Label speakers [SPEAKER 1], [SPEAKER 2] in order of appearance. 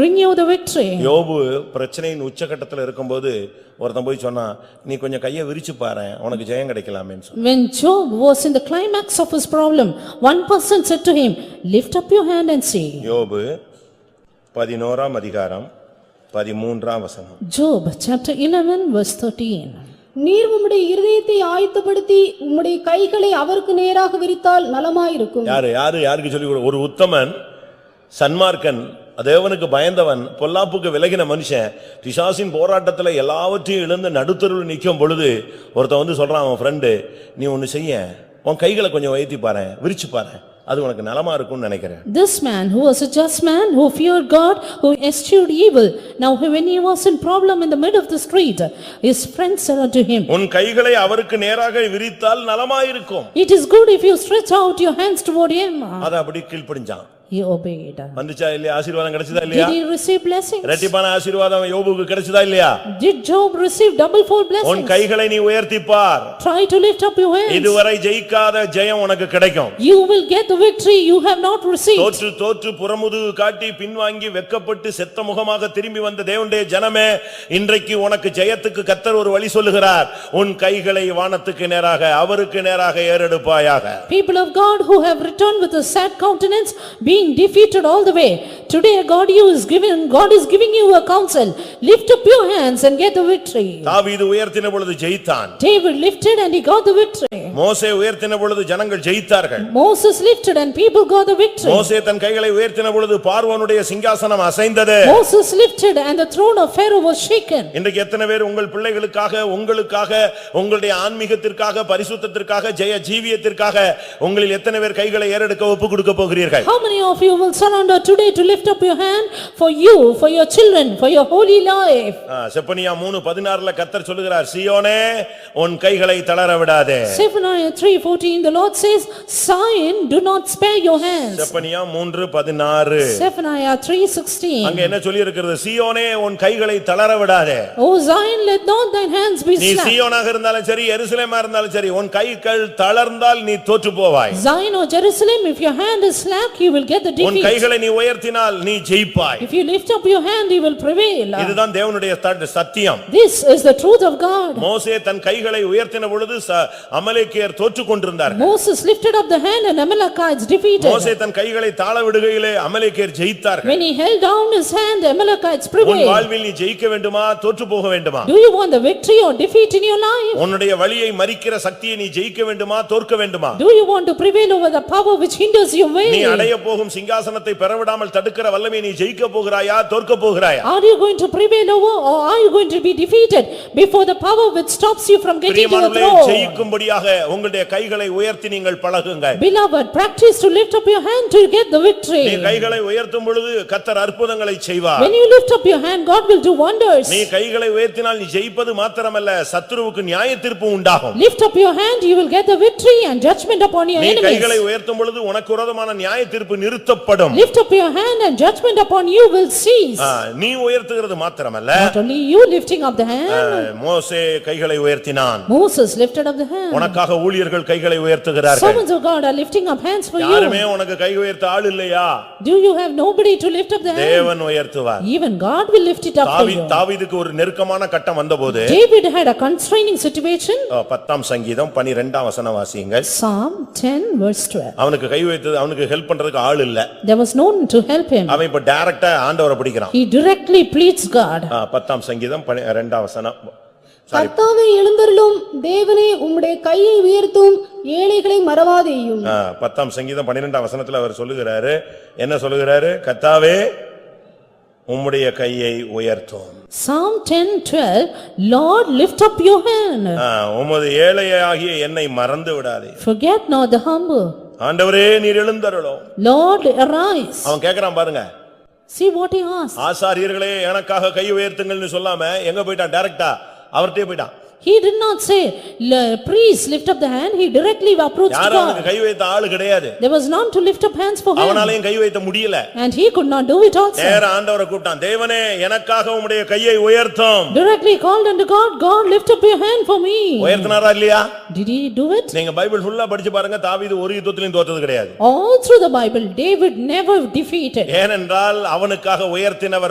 [SPEAKER 1] bring you the victory.
[SPEAKER 2] யோபு பிரச்சனையின் உச்சகட்டத்துல இருக்கும்போது ஒருத்தன் போய் சொன்னான் நீ கொஞ்சம் கையை விரிச்சு பாரு உனக்கு ஜெயம் கிடைக்கலாமேன்னு சொன்னான்
[SPEAKER 1] When Job was in the climax of his problem, one person said to him, "Lift up your hand and see."
[SPEAKER 2] யோபு பதினோராம் அதிகாரம் பதிமூன்றாம் வசனம்
[SPEAKER 1] Job, chapter 11, verse 13.
[SPEAKER 3] நீர் உம்முடைய இருதயத்தை ஆயத்தப்படுத்தி உம்முடைய கைகளை அவருக்கு நேராக விரித்தால் நலமாயிருக்கும்
[SPEAKER 2] யாரு யாரு யாருக்கு சொல்லி ஒரு உத்தமன் சன்மார்க்கன் தேவனுக்கு பயந்தவன் பொல்லாப்புக்கு விலகின மனுஷன் பிசாசின் போராட்டத்துல எல்லாவற்றையும் இழந்து நடுத்தருள் நிக்கும் பொழுது ஒருத்தன் வந்து சொல்றான் அவன் ஃப்ரெண்டு நீ ஒன்னு செய்ய உன் கைகளை கொஞ்சம் உயர்த்தி பாரு விரிச்சு பாரு அது உனக்கு நலமா இருக்கும்னு நினைக்கிறேன்
[SPEAKER 1] This man, who was a just man, who feared God, who eschewed evil, now when he was in problem in the middle of the street, his friend said unto him,
[SPEAKER 2] உன் கைகளை அவருக்கு நேராக விரித்தால் நலமாயிருக்கும்
[SPEAKER 1] "It is good if you stretch out your hands toward him."
[SPEAKER 2] அதை அப்படியே கீழ்ப்படிஞ்சான்
[SPEAKER 1] He obeyed.
[SPEAKER 2] வந்துச்சா இல்லையா ஆசீர்வாதம் கிடைச்சதா
[SPEAKER 1] Did
[SPEAKER 2] இல்லையா
[SPEAKER 1] he receive blessings?
[SPEAKER 2] ரெட்டிப்பான ஆசீர்வாதம் யோபுக்கு கிடைச்சதா இல்லையா
[SPEAKER 1] Did Job receive double fold
[SPEAKER 2] உன்
[SPEAKER 1] blessings?
[SPEAKER 2] கைகளை நீ உயர்த்தி பார்
[SPEAKER 1] Try to lift up your hands.
[SPEAKER 2] இதுவரை ஜெயிக்காத ஜெயம் உனக்கு கிடைக்கும்
[SPEAKER 1] You will get the victory you have not received.
[SPEAKER 2] தோற்று தோற்று புறமுதுகு காட்டி பின்வாங்கி வெக்கப்பட்டு செத்த முகமாக திரும்பி வந்த தேவனுடைய ஜனமே இன்றைக்கு உனக்கு ஜெயத்துக்கு கத்தர் ஒரு வழி சொல்லுகிறார் உன் கைகளை வானத்துக்கு நேராக அவருக்கு நேராக ஏறெடுப்பாயாக
[SPEAKER 1] People of God who have returned with a sad countenance, being defeated all the way. Today God you is giving, God is giving you a counsel. Lift up your hands and get the victory.
[SPEAKER 2] தாவீது உயர்த்தின பொழுது ஜெயித்தான்
[SPEAKER 1] David lifted and he got the victory.
[SPEAKER 2] மோசே உயர்த்தின பொழுது ஜனங்கள் ஜெயித்தார்கள்
[SPEAKER 1] Moses lifted and people got the victory.
[SPEAKER 2] மோசே தன் கைகளை உயர்த்தின பொழுது பார்வோனுடைய சிங்காசனம் அசைந்தது
[SPEAKER 1] Moses lifted and the throne of Pharaoh was shaken.
[SPEAKER 2] இன்றைக்கு எத்தனை பேர் உங்கள் பிள்ளைகளுக்காக உங்களுக்காக உங்களுடைய ஆன்மீகத்திற்காக பரிசுத்தத்திற்காக ஜெய ஜீவியத்திற்காக உங்களில் எத்தனை பேர் கைகளை ஏறெடுக்க ஒப்பு கொடுக்க போகிறீர்கள்
[SPEAKER 1] How many of you will surrender today to lift up your hand for you, for your children, for your holy life?
[SPEAKER 2] ஆ, செப்பனியா மூணு பதினாறுல கத்தர் சொல்லுகிறார் சியோனே உன் கைகளை தளர விடாதே
[SPEAKER 1] Zephaniah 3:14, the Lord says, "Zion, do not spare your hands."
[SPEAKER 2] Zephaniah மூன்று பதினாறு
[SPEAKER 1] Zephaniah 3:16,
[SPEAKER 2] அங்க என்ன சொல்லி இருக்கிறது சியோனே உன் கைகளை தளர விடாதே
[SPEAKER 1] "O Zion, let not thine hands be
[SPEAKER 2] நீ
[SPEAKER 1] slack."
[SPEAKER 2] சியோனாக இருந்தாலும் சரி எருசலேமா இருந்தாலும் சரி உன் கைகள் தளர்ந்தால் நீ தோற்று போவாய்
[SPEAKER 1] Zion or Jerusalem, if your hand is slack, you will get the
[SPEAKER 2] உன்
[SPEAKER 1] defeat.
[SPEAKER 2] கைகளை நீ உயர்த்தினால் நீ ஜெயிப்பாய்
[SPEAKER 1] If you lift up your hand, you will prevail.
[SPEAKER 2] இதுதான் தேவனுடைய தட்- சத்தியம்
[SPEAKER 1] This is the truth of God.
[SPEAKER 2] மோசே தன் கைகளை உயர்த்தின பொழுது ச- அமலேக்கியர் தோற்று கொண்டிருந்தார்
[SPEAKER 1] Moses lifted up the hand and Amalekites defeated.
[SPEAKER 2] மோசே தன் கைகளை தாழ விடுகையிலே அமலேக்கியர் ஜெயித்தார்கள்
[SPEAKER 1] When he held down his hand, Amalekites
[SPEAKER 2] உன்
[SPEAKER 1] prevailed.
[SPEAKER 2] வாழ்வில் நீ ஜெயிக்க வேண்டுமா தோற்று போக வேண்டுமா
[SPEAKER 1] Do you want the victory or defeat in your life?
[SPEAKER 2] உன்னுடைய வழியை மறிக்கிற சக்தியை நீ ஜெயிக்க வேண்டுமா தோற்க வேண்டுமா
[SPEAKER 1] Do you want to prevail over the power which hinders your way?
[SPEAKER 2] நீ அடைய போகும் சிங்காசனத்தை பெறவிடாமல் தடுக்கிற வல்லமையை நீ ஜெயிக்க போகிறாயா தோற்க போகிறாயா
[SPEAKER 1] Are you going to prevail over or are you going to be defeated before the power which stops you from getting to the
[SPEAKER 2] பிரியமானவர்களே
[SPEAKER 1] throne?
[SPEAKER 2] ஜெயிக்கும்படியாக உங்களுடைய கைகளை உயர்த்தி நீங்கள் பழகுங்க
[SPEAKER 1] Beloved, practice to lift up your hand to get the victory.
[SPEAKER 2] நீ கைகளை உயர்த்தும் பொழுது கத்தர் அற்புதங்களை செய்வார்
[SPEAKER 1] When you lift up your hand, God will do wonders.
[SPEAKER 2] நீ கைகளை உயர்த்தினால் நீ ஜெயிப்பது மாத்திரமல்ல சத்துருவுக்கு நியாய தீர்ப்பு உண்டாகும்
[SPEAKER 1] Lift up your hand, you will get the victory and judgment upon your
[SPEAKER 2] நீ கைகளை
[SPEAKER 1] enemies.
[SPEAKER 2] உயர்த்தும் பொழுது உனக்கு விரோதமான நியாய தீர்ப்பு நிறுத்தப்படும்
[SPEAKER 1] Lift up your hand and judgment upon you will cease.
[SPEAKER 2] ஆ, நீ உயர்த்துகிறது மாத்திரமல்ல
[SPEAKER 1] Not only you lifting up the
[SPEAKER 2] ah,
[SPEAKER 1] hand,
[SPEAKER 2] மோசே கைகளை உயர்த்தினான்
[SPEAKER 1] Moses lifted up the hand.
[SPEAKER 2] உனக்காக ஊழியர்கள் கைகளை உயர்த்துகிறார்கள்
[SPEAKER 1] Servants of God are lifting up hands for
[SPEAKER 2] யாருமே
[SPEAKER 1] you.
[SPEAKER 2] உனக்கு கை உயர்த்த ஆள் இல்லையா
[SPEAKER 1] Do you have nobody to lift up the hand?
[SPEAKER 2] தேவன் உயர்த்துவார்
[SPEAKER 1] Even God will lift it up for
[SPEAKER 2] தாவி
[SPEAKER 1] you.
[SPEAKER 2] தாவீதுக்கு ஒரு நெருக்கமான கட்டம் வந்தபோது
[SPEAKER 1] David had a constraining situation,
[SPEAKER 2] ஆ, பத்தாம் சங்கீதம் பனிரெண்டாம் வசனம் வாசியுங்கள்
[SPEAKER 1] Psalm 10 verse 12.
[SPEAKER 2] அவனுக்கு கை வைத்தது அவனுக்கு ஹெல்ப் பண்றதுக்கு ஆள் இல்ல
[SPEAKER 1] There was no one to help him.
[SPEAKER 2] அவன் இப்ப டைரக்டா ஆண்டவரை பிடிக்கிறான்
[SPEAKER 1] He directly pleads God.
[SPEAKER 2] ஆ, பத்தாம் சங்கீதம் பனி- இரண்டாம் வசனம் சாரி
[SPEAKER 3] கர்த்தாவே எழுந்தருளும் தேவனே உம்முடைய கையை உயர்த்தும் ஏழைகளை மறவாதேயும்
[SPEAKER 2] ஆ, பத்தாம் சங்கீதம் பன்னிரெண்டாம் வசனத்துல அவர் சொல்லுகிறாரு என்ன சொல்லுகிறாரு கத்தாவே உம்முடைய கையை உயர்த்தும்
[SPEAKER 1] Psalm 10 12, "Lord, lift up your hand.
[SPEAKER 2] ஆ, உமது ஏழையாகிய என்னை மறந்து விடாதே
[SPEAKER 1] Forget not the humble.
[SPEAKER 2] ஆண்டவரே நீர் எழுந்தருளும்
[SPEAKER 1] Lord, arise."
[SPEAKER 2] அவன் கேக்குறான் பாருங்க
[SPEAKER 1] See what he asked.
[SPEAKER 2] ஆசாரியர்களே எனக்காக கை உயர்த்துங்கள்னு சொல்லாம எங்க போயிட்டான் டைரக்டா அவர்ட்டே போயிட்டான்
[SPEAKER 1] He did not say, "Le- priest, lift up the hand. He directly approached
[SPEAKER 2] யாரும் அவனுக்கு
[SPEAKER 1] God.
[SPEAKER 2] கை வைத்த ஆளு கிடையாது
[SPEAKER 1] There was none to lift up hands for him.
[SPEAKER 2] அவனாலையும் கை வைத்த முடியல
[SPEAKER 1] And he could not do it also.
[SPEAKER 2] நேர ஆண்டவரை கூப்பிட்டான் தேவனே எனக்காக உம்முடைய கையை உயர்த்தும்
[SPEAKER 1] Directly called unto God, "God, lift up your hand for me."
[SPEAKER 2] உயர்த்தினாரா இல்லையா
[SPEAKER 1] Did he do it?
[SPEAKER 2] நீங்க பைபிள் ஃபுல்லா படிச்சு பாருங்க தாவீது ஒரு யுத்தத்திலையும் தோற்றது கிடையாது
[SPEAKER 1] All through the Bible, David never defeated.
[SPEAKER 2] ஏனென்றால் அவனுக்காக உயர்த்தினவர்